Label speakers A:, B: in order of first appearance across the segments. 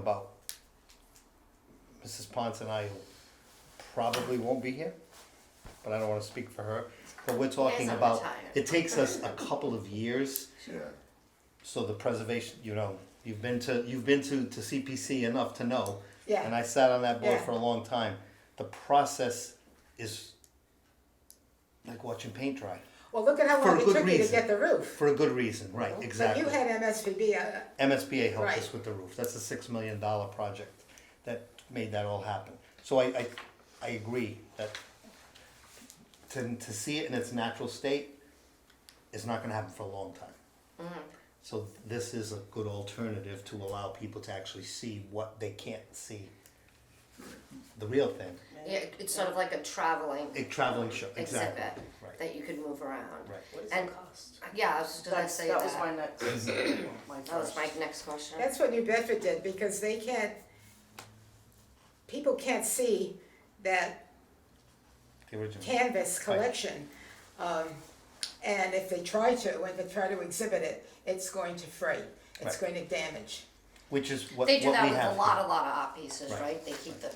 A: about Mrs. Ponce and I probably won't be here, but I don't wanna speak for her. But we're talking
B: Yes, I'm
A: about,
B: retired.
A: it takes us a couple of years,
C: Yeah,
A: so the preservation, you know, you've been to, you've been to, to CPC enough to know.
B: Yeah.
A: And I sat on that board
B: Yeah.
A: for a long time. The process is like watching paint dry,
B: Well, look at how
A: For
B: long it
A: good
B: took me to
A: reason.
B: get the roof.
A: for a good reason, right, exactly.
B: But you had MSVB, uh,
A: MSBA helped us
B: Right.
A: with the roof. That's a six million dollar project that made that all happen. So I, I, I agree that to, to see it in its natural state is not gonna happen for a long time.
D: Mm-hmm.
A: So this is a good alternative to allow people to actually see what they can't see, the real thing.
D: Yeah, it- it's sort of like a traveling
A: A traveling show, exactly,
D: exhibit
A: right,
D: that you could move around.
A: right.
E: What is
D: And-
E: the cost?
D: Yeah, I was just gonna
E: That's-
D: say
E: that was my
D: that.
E: next. my
D: That was my
E: first.
D: next question.
B: that's what New Bedford did, because they can't, people can't see that
A: The original.
B: canvas collection. Um, and if they try to, when they try to exhibit it, it's going to fray, it's
A: Right.
B: going to damage.
A: Which is what, what we
D: They
A: have.
D: do that with a lot,
A: here.
D: a lot of art pieces,
A: Right.
D: right? They keep the,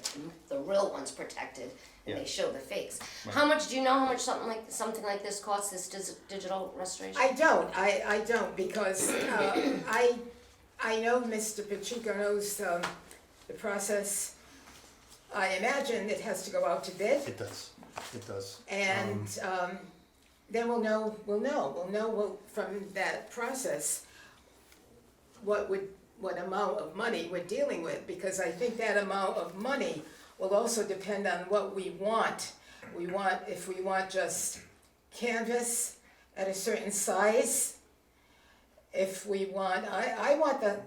D: the real ones protected and
A: Yeah.
D: they show the fakes. How much, do you know how much something like, something like this costs, this dis- digital restoration?
B: I don't, I, I don't, because, uh, I, I know Mr. Pacheco knows, um, the process. I imagine it has to go out to bid.
A: It does, it does.
B: And um, then we'll know, we'll know, we'll know what- from that process what would, what amount of money we're dealing with, because I think that amount of money will also depend on what we want. We want, if we want just canvas at a certain size, if we want, I, I want the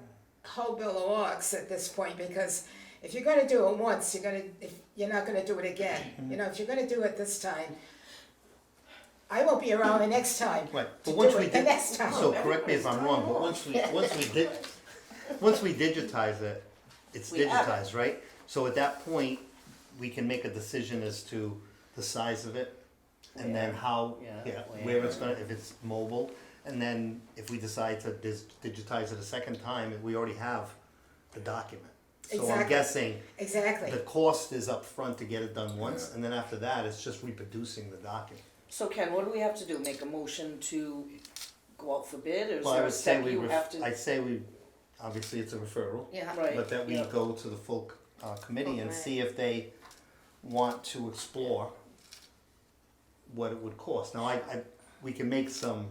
B: whole bill of works at this point, because if you're gonna do it once, you're gonna, if, you're not gonna do it again.
A: Mm-hmm.
B: You know, if you're gonna do it this time, I won't be around the next time.
A: Right,
B: to
A: but once
B: do
A: we
B: it the
A: did,
B: next time.
A: so correct me if I'm wrong, but once we, once we did, once we digitize it, it's
E: We have it.
A: digitized, right? So at that point, we can make a decision as to the size of it, and then how,
E: Yeah,
A: yeah,
E: where.
A: where it's gonna, if it's mobile. And then if we decide to dis- digitize it a second time, we already have the document. So I'm
B: Exactly.
A: guessing
B: Exactly.
A: the cost is up front to get it done once, and then after that, it's just reproducing the document.
E: So Ken, what do we have to do? Make a motion to go out for bid or is
A: Well, I
E: there a
A: would say
E: step
A: we,
E: you
A: ref-
E: have to?
A: I'd say we, obviously it's a referral,
D: Yeah.
E: Right.
A: but that we
E: yeah.
A: go to the full uh, committee and
D: Right.
A: see if they want to explore what it would cost. Now, I, I, we can make some,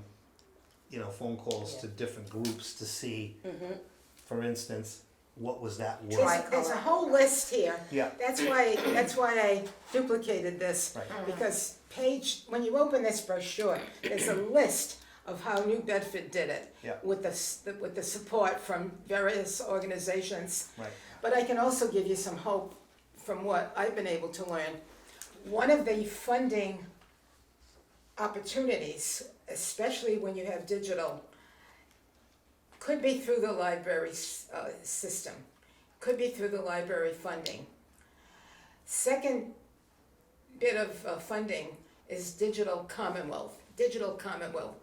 A: you know, phone calls to different groups to see,
E: Mm-hmm.
A: for instance, what was that worth?
B: There's, there's a whole list here.
A: Yeah.
B: That's why, that's why I duplicated this.
A: Right.
B: Because page, when you open this brochure, there's a list of how New Bedford did it.
A: Yeah.
B: With the, s- with the support from various organizations.
A: Right.
B: But I can also give you some hope from what I've been able to learn. One of the funding opportunities, especially when you have digital, could be through the library s- uh, system, could be through the library funding. Second bit of uh, funding is digital Commonwealth. Digital Commonwealth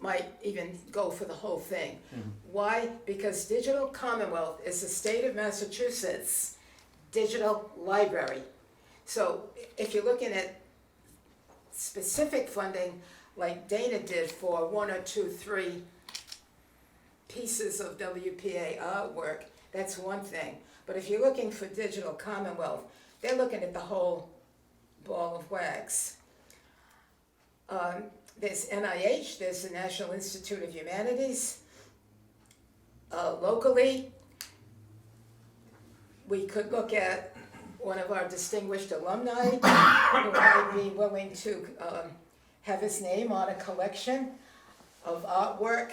B: might even go for the whole thing. Why? Because Digital Commonwealth is the state of Massachusetts digital library. So if you're looking at specific funding, like Dana did for one or two, three pieces of WPA artwork, that's one thing. But if you're looking for Digital Commonwealth, they're looking at the whole ball of wax. Um, there's NIH, there's the National Institute of Humanities. Uh, locally, we could look at one of our distinguished alumni who might be willing to um, have his name on a collection of artwork.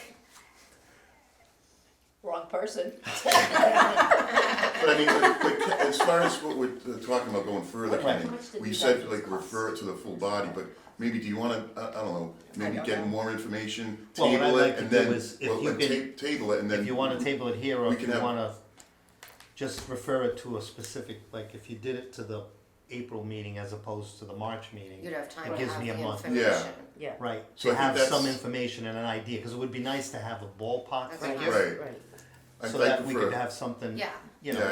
D: Wrong person.
C: but I mean, but, but ca- as far as what we're uh, talking about going further,
A: Right.
C: Kenny,
D: How much did
C: we
D: you
C: said
D: guys
C: like
D: cost?
C: refer it to the full body, but maybe do you wanna, I, I don't know, maybe
D: don't know.
C: get more information,
A: Well, what I'd
C: table
A: like
C: it,
A: to
C: and
A: do
C: then,
A: is if
C: well,
A: you
C: like,
A: can-
C: ta- table it, and then.
A: If you wanna table it here, or
C: We
A: if
C: can
A: you
C: have-
A: wanna just refer it to a specific, like, if you did it to the April meeting as opposed to the March meeting,
D: You'd have time
A: it
D: to
A: gives
D: have
A: me
D: the
A: a month.
D: information.
F: Yeah,
A: Right,
C: So
A: to
C: I think
A: have some
C: that's-
A: information and an idea, because it would be nice to have a ballpark
D: That's
A: figure,
D: awesome.
C: Right,
F: right.
C: I'd
A: so
C: like
A: that
C: to
A: we
C: refer-
A: could have something
D: Yeah.
G: you know.
A: Yeah,